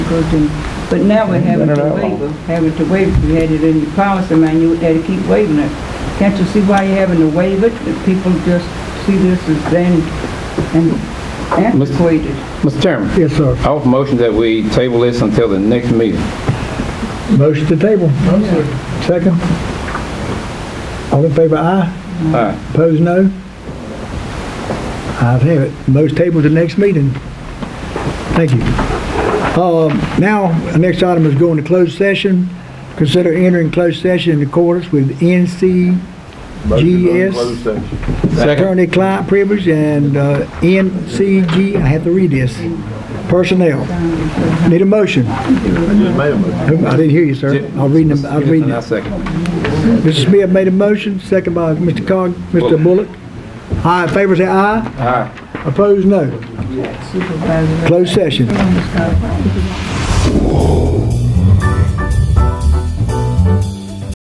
vehicles and, but now we're having Been to around long. waiver, having to waiver. If You had it in your policy manual, they had to keep waiving it. Can't you see why you're having to waive it? That People just see this as then, and antiquated. Mr. Chairman, Yes, sir. I offer motion that we table this until the next meeting. Motion to table. Second. All in favor, aye. All right, Opposed, no. Ayes have it. Most tabled to next meeting. Thank you. Um, Now, our next item is going to closed session. Consider entering closed session in accordance with NCGS, second. attorney-client privilege, and uh, NCG, I have to read this, personnel. Need a motion? Who- I didn't hear you, sir. I was reading, I was reading it. I second. Mr. Smith made a motion, second by Mr. Cog, Mr. Bullock. All in favor, say aye. All right. Opposed, no. Supervisor. Closed session.